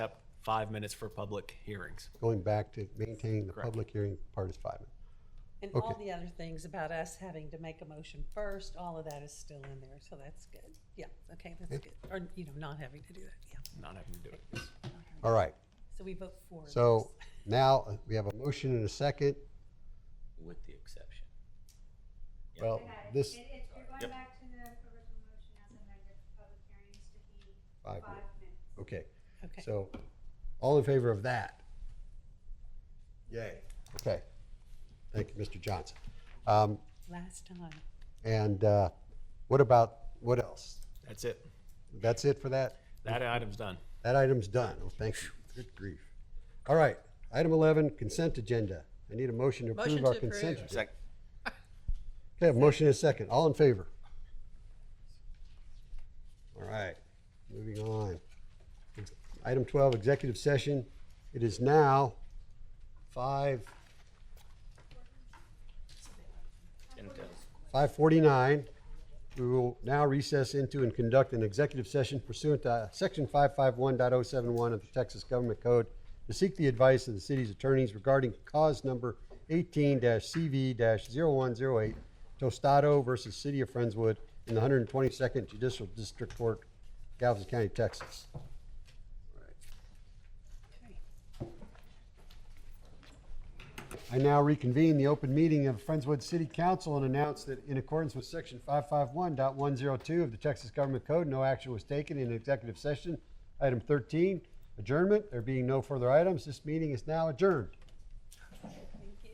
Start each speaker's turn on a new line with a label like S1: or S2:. S1: five minutes for public hearings.
S2: Going back to maintaining the
S1: Correct.
S2: public hearing part is five minutes.
S3: And all
S2: Okay.
S3: the other things about us having to make a motion first, all of that is still in there, so that's good. Yeah, okay, that's good. Or, you know, not having to do that, yeah.
S1: Not having to do it.
S2: All right,
S3: So we vote for.
S2: so now uh, we have a motion and a second.
S4: with the exception.
S2: Well, this,
S5: It, it's, you're
S4: Yep.
S5: going back to the original motion as amended, public hearings to be
S2: Five
S5: five minutes.
S2: okay,
S3: Okay.
S2: so all in favor of that? Yay. Okay. Thank you, Mr. Johnson. Um,
S3: Last time.
S2: And uh, what about, what else?
S1: That's it.
S2: That's it for that?
S1: That item's done.
S2: That item's done. Oh, thank you. Good grief. All right, item 11, consent agenda. I need a motion to approve
S6: Motion
S2: our
S6: to approve.
S2: consent. agenda.
S4: Second.
S2: Okay, I have a motion and a second. All in favor? All right, moving on. Item 12, executive session. It is now 5,
S4: And, uh,
S2: 5:49. We will now recess into and conduct an executive session pursuant to uh, Section 551.071 of the Texas Government Code to seek the advice of the city's attorneys regarding cause number 18-CV-0108 Tostado versus City of Friendswood in the 122nd Judicial District Court, Galveston County, Texas. I now reconvene the open meeting of Friendswood City Council and announce that in accordance with section 551.102 of the Texas Government Code, no action was taken in executive session. Item 13, adjournment. There being no further items, this meeting is now adjourned.